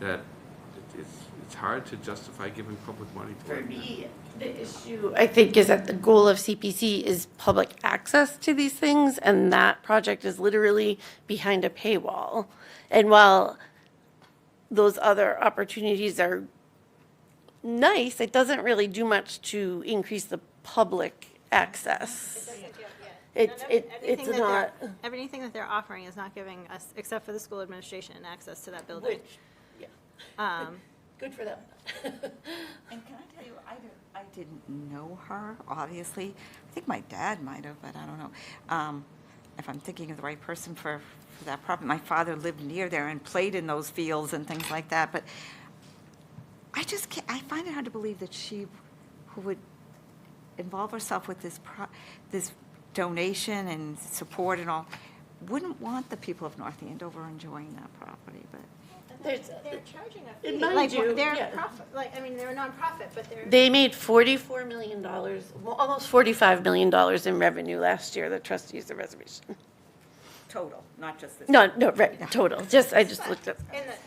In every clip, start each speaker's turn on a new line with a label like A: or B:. A: that it- it's, it's hard to justify giving public money to
B: For
A: it.
B: me,
C: The issue, I think, is that the goal of CPC is public access to these things, and that project is literally behind a paywall. And while those other opportunities are nice, it doesn't really do much to increase the public access. It's, it, it's
D: Everything that
C: not,
D: they're- Everything that they're offering is not giving us, except for the school administration, access to that building.
C: Which-
D: Um,
C: good for them.
B: and can I tell you, I didn't, I didn't know her, obviously. I think my dad might have, but I don't know. Um, If I'm thinking of the right person for, for that property, my father lived near there and played in those fields and things like that, but I just can't, I find it hard to believe that she who would involve herself with this pro, this donation and support and all, wouldn't want the people of North Andover enjoying that property, but.
C: There's-
D: They're charging a
C: And
D: fee.
C: mind
D: Like,
C: you,
D: They're
C: yeah.
D: profit, like, I mean, they're a nonprofit, but they're.
C: They made forty-four million dollars, almost forty-five million dollars in revenue last year, the trustees of reservation.
B: Total, not just this.
C: No, no, right, total, just, I just looked up.
D: And the-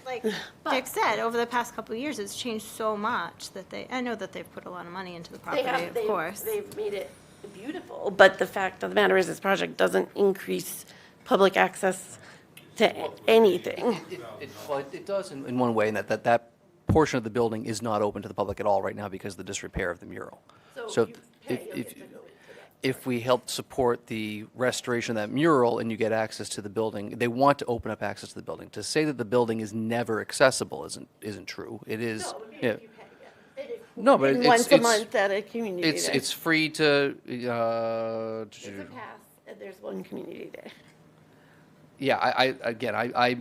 D: like Dick said, over the past couple of years, it's changed so much that they, I know that they've put a lot of money into the
C: They
D: property,
C: have,
D: of
C: they've,
D: course.
C: they've made it beautiful, but the fact of the matter is, this project doesn't increase public access to a- anything.
E: It- it- Well, it- it does in in one way, in that, that that portion of the building is not open to the public at all right now because of the disrepair of the mural. So if, if, if we help support the restoration of that mural and you get access to the building, they want to open up access to the building. To say that the building is never accessible isn't, isn't true. It is. yeah. No, but it's,
C: Once a
E: it's-
C: month at a community
E: It's,
C: day.
E: it's free to, uh.
C: It's a pass, and there's one community day.
E: Yeah, I, I, again, I, I,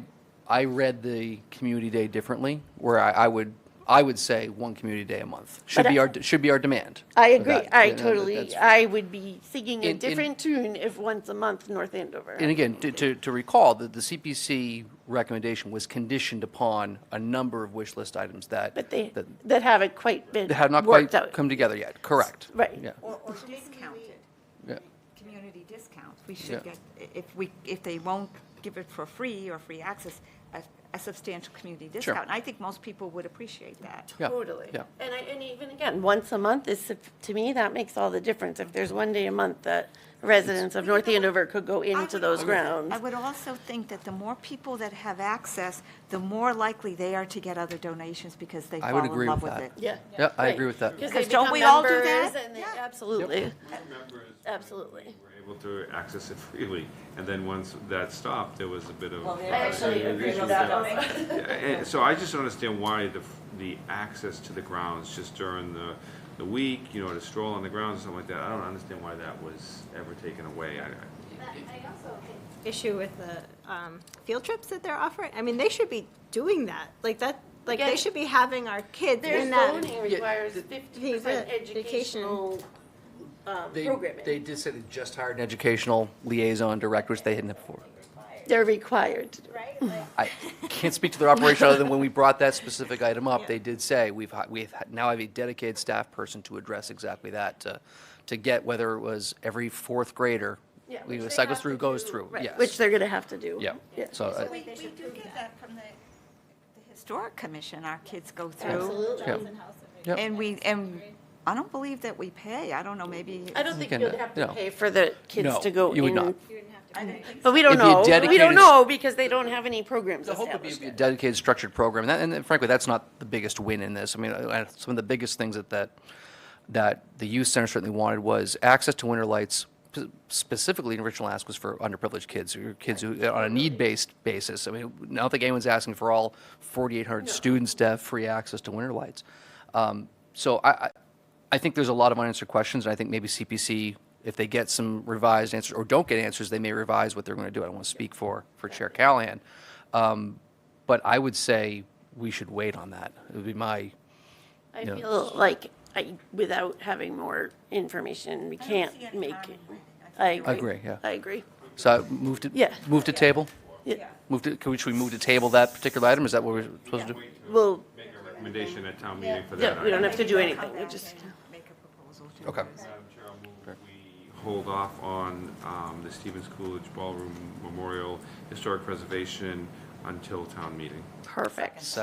E: I read the community day differently, where I, I would, I would say one community day a month should
C: But
E: be
C: I-
E: our, should be our demand.
C: I
E: for
C: agree,
E: that.
C: I
E: And- and
C: totally,
E: that's-
C: I would be singing
E: In-
C: a
E: in-
C: different tune if once a month North Andover.
E: And again, to, to, to recall that the CPC recommendation was conditioned upon a number of wish list items that.
C: But they,
E: That
C: that haven't quite been
E: that have not quite
C: worked out.
E: come together yet, correct.
C: Right.
E: Yeah,
B: Or, or discounted,
E: yeah.
B: community discounts. We
E: Yeah.
B: should get, if we, if they won't give it for free or free access, a, a substantial community discount. And I think most people would appreciate that.
E: Yeah,
C: Totally.
E: yeah.
C: And I, and even again, once a month is, suf- to me, that makes all the difference. If there's one day a month that residents of North Andover could go
B: I
C: into
B: would
C: those
B: also-
C: grounds.
B: I would also think that the more people that have access, the more likely they are to get other donations because they
E: I
B: fall
E: would
B: in
E: agree
B: love
E: with
B: with it.
E: that.
C: Yeah.
E: Yeah, I agree with that.
C: Because they
B: Because don't
C: become
B: we all do
C: members
B: that?
C: and they-
B: Yeah.
C: Absolutely.
A: Members
C: Uh, Absolutely.
A: Were able to access it freely, and then once that stopped, there was a bit of. uh,
B: I
C: actually agree with that also.
A: Yeah, and so I just don't understand why the, the access to the grounds just during the, the week, you know, to stroll on the grounds and something like that, I don't understand why that was ever taken away. I, I-
D: Issue with the, um, field trips that they're offering, I mean, they should be doing that, like that, like they
C: Again,
D: should be having our kids
C: Their
D: in that.
C: zoning requires fifty
D: He's
C: percent
D: a-
C: educational, um,
E: They, they
C: programming.
E: did say they just hired an educational liaison director, which they hadn't before.
C: They're required to do.
D: Right, like,
E: I can't speak to their operation other than when we brought that specific item up, they did say, we've, hi- we've ha- now have a dedicated staff person to address exactly that, to, to get whether it was every fourth grader,
C: Yeah,
E: we
C: which they
E: cycle
C: have
E: through,
C: to
E: goes
C: do,
E: through,
C: right,
E: yes.
C: Which they're gonna have to do.
E: Yeah, so, uh,
B: We, we do get that from the, the historic commission, our kids go through.
C: Absolutely.
E: yeah, yeah.
B: And we, and I don't believe that we pay. I don't know, maybe.
C: I don't think
E: can,
C: you'd
E: uh,
C: have to
E: no.
C: pay for the kids
E: No,
C: to go in.
E: you would not.
D: you wouldn't have to.
B: I don't think
C: But we don't
E: It'd be a
C: know. We don't
E: dedicated-
C: know because they don't have any programs
E: The hope would be
C: established
E: to be a
C: yet.
E: dedicated, structured program, and that- and frankly, that's not the biggest win in this. I mean, uh, some of the biggest things that, that, that the youth center certainly wanted was access to winter lights, p- specifically in Richland Alaska, was for underprivileged kids, or kids who, on a need-based basis. I mean, I don't think anyone's asking for all 4,800 students to have free access to winter lights. Um, So I, I- I think there's a lot of unanswered questions, and I think maybe CPC, if they get some revised answers, or don't get answers, they may revise what they're going to do. I don't want to speak for, for Chair Callahan. Um, But I would say we should wait on that. It would be my,
C: I
E: Yeah.
C: feel like I, without having more information, we can't
B: see any
C: make
B: harm
C: it.
B: in waiting.
C: I
B: I think
C: agree.
E: agree, yeah.
C: I agree.
E: so I move to,
C: Yeah.
E: move to table?
C: Yeah.
E: Move to, can we- should we move to table that particular item? Is that what we're supposed to do?
A: Wait to
C: Well,
A: Make a recommendation at town meeting for that.
C: yeah, we don't have to do
B: Maybe they'll come
C: anything. We
B: back
C: just,
B: and Make a proposal to.
E: Okay.
B: us.
A: Madam Chair, I'll move we hold off on um, the Stevens Coolidge Ballroom Memorial Historic Preservation until town meeting.
C: perfect.